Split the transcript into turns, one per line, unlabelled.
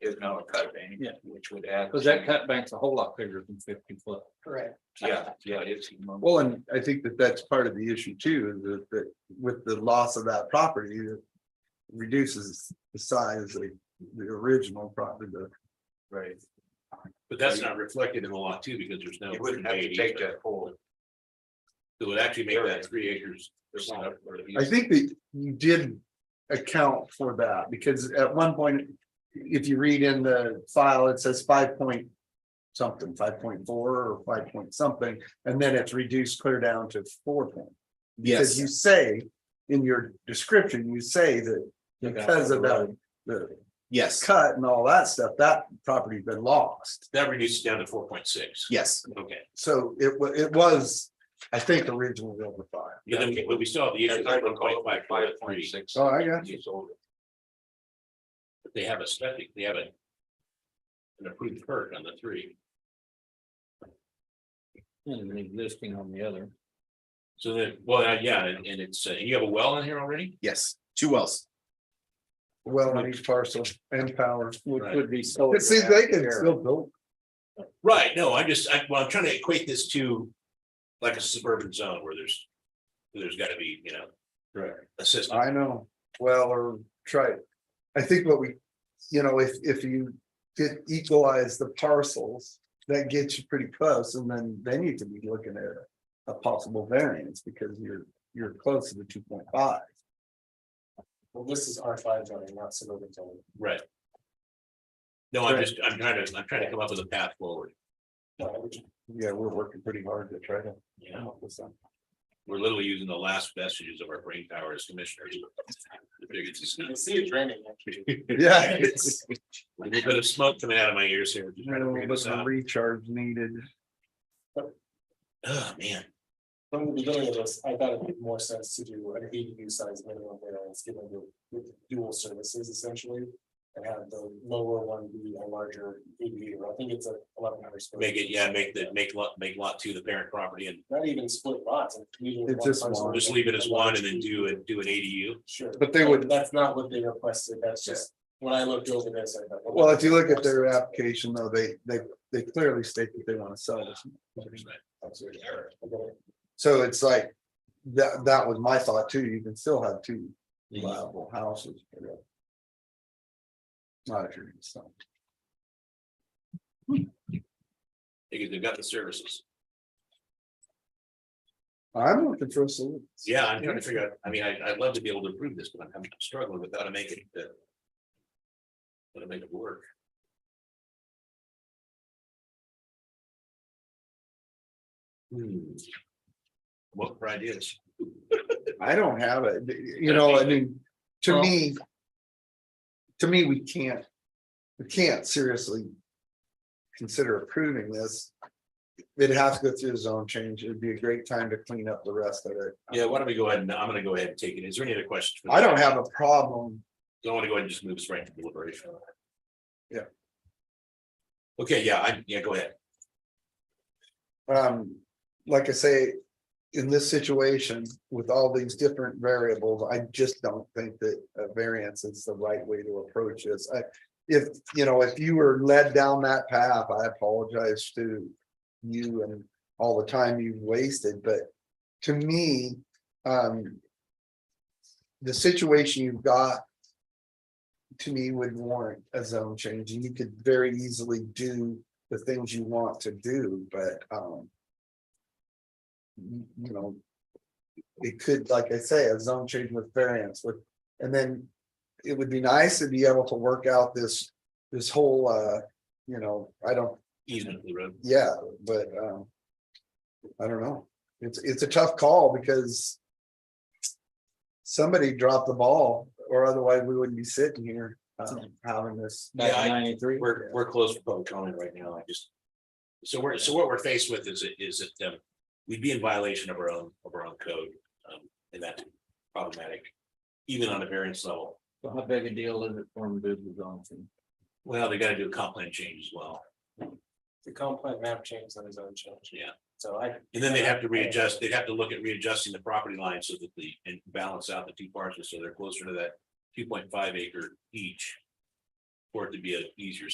dollar cut bank.
Yeah.
Which would add.
Cause that cut bank's a whole lot bigger than fifty foot.
Correct.
Yeah, yeah, it's. humongous.
Well, and I think that that's part of the issue too, is that, that with the loss of that property, it reduces the size of the original property. the-
Right.
But that's not reflected in the lot too, because there's no.
You wouldn't have to take that whole.
It would actually make that three acres. there's not-
I think that you did account for that, because at one point, if you read in the file, it says five point something, five point four or five point something, and then it's reduced clear down to four point. Because you say, in your description, you say that because of that, the
Yes,
cut and all that stuff, that property's been lost.
That reduces down to four point six.
yes.
Okay,
So it wa- it was, I think, originally over five.
but then we, but we still have the issue.
Five
of
point five, five point
1.5,
six.
Oh, I got
Years old.
but They have a septic, they have a. An approved perk on the three,
And an existing on the other.
so then, well, uh, yeah, and and it's, uh, you have a well in here already?
Yes, two wells.
Well, on each parcel and power.
Which
Right.
would be solar.
It seems they can
Yeah.
still build.
Right, no, I'm just, I, well, I'm trying to equate this to. Like a suburban zone where there's. There's gotta be, you know.
Right.
A system.
I know, well, or try. I think what we, you know, if if you did equalize the parcels, that gets you pretty close, and then then you could be looking at. A possible variance because you're you're close to the two point five.
Well, this is R five zoning, not suburban zoning.
Right. No, I'm
Right.
just, I'm trying to, I'm trying to come up with a path forward.
No, I would-
Yeah, we're working pretty hard to try to.
You
come
know,
up with something.
we're literally using the last vestiges of our brain power as commissioners. The biggest is
You
not-
can see it draining. actually.
Yeah. it's-
A little bit of smoke coming out of my ears here. just
A
trying to
little
figure
bit
this
of a
out.
recharge needed.
Oh, man.
From the beginning of this, I thought it made more sense to do an ADU size minimum variance, given the the dual services essentially. And have the lower one be a larger ADU, I think it's a eleven hundred. square
Make it,
feet.
yeah, make the, make lot, make lot two the parent property and
Not even split lots. like, leaving
It's
one
just
parcel
one.
just leave it as one and then
large
do it, do an ADU.
Sure.
But they would-
That's not what they requested, that's just, when I looked over this, I thought.
Well, if you look at their application, though, they, they, they clearly state that they want to sell this.
Absolutely. Okay.
So it's like, that, that was my thought too. You can still have two viable houses. you know. Not if you're, so,
Because they've got the services.
I'm looking for a solution.
Yeah, I'm trying to figure out, I mean, I, I'd love to be able to improve this, but I'm I'm struggling with how to make it. uh, How to make it work. Hmm. What for ideas?
I don't have it, you know, I mean, to me. To me, we can't, we can't seriously. Consider approving this. It'd have to go through a zone change. It'd be a great time to clean up the rest of it.
Yeah, why don't we go ahead and, I'm gonna go ahead and take it. Is there any other questions? for
I
that?
don't have a problem.
Don't wanna go ahead and just move this right to deliberation.
Yeah.
Okay, yeah, I, yeah, go ahead.
Um, like I say. In this situation with all these different variables, I just don't think that a variance is the right way to approach this. I. If, you know, if you were led down that path, I apologize to you and all the time you've wasted, but to me, um. The situation you've got. To me would warrant a zone change and you could very easily do the things you want to do, but, um. You you know. It could, like I say, a zone change with variance with, and then it would be nice to be able to work out this, this whole, uh, you know, I don't
Easement of the road.
yeah, but um. I don't know. It's it's a tough call because. Somebody dropped the ball or otherwise we wouldn't be sitting here um, having this.
Back
Yeah, I-
in ninety-three.
We're, we're close to public comment right now, I just. So we're, so what we're faced with is, it is that, um, we'd be in violation of our own, of our own code, um, and that's problematic. Even on a variance level,
So How big a deal is it for them to do the zone change?
well, they gotta do a comp plan change as well,
The complaint map change on his own change.
Yeah.
So I,
and then they have to readjust, they'd have to look at readjusting the property line so that the, and balance out the two parcels, so they're closer to that. Two point five acre each. For it to be an easier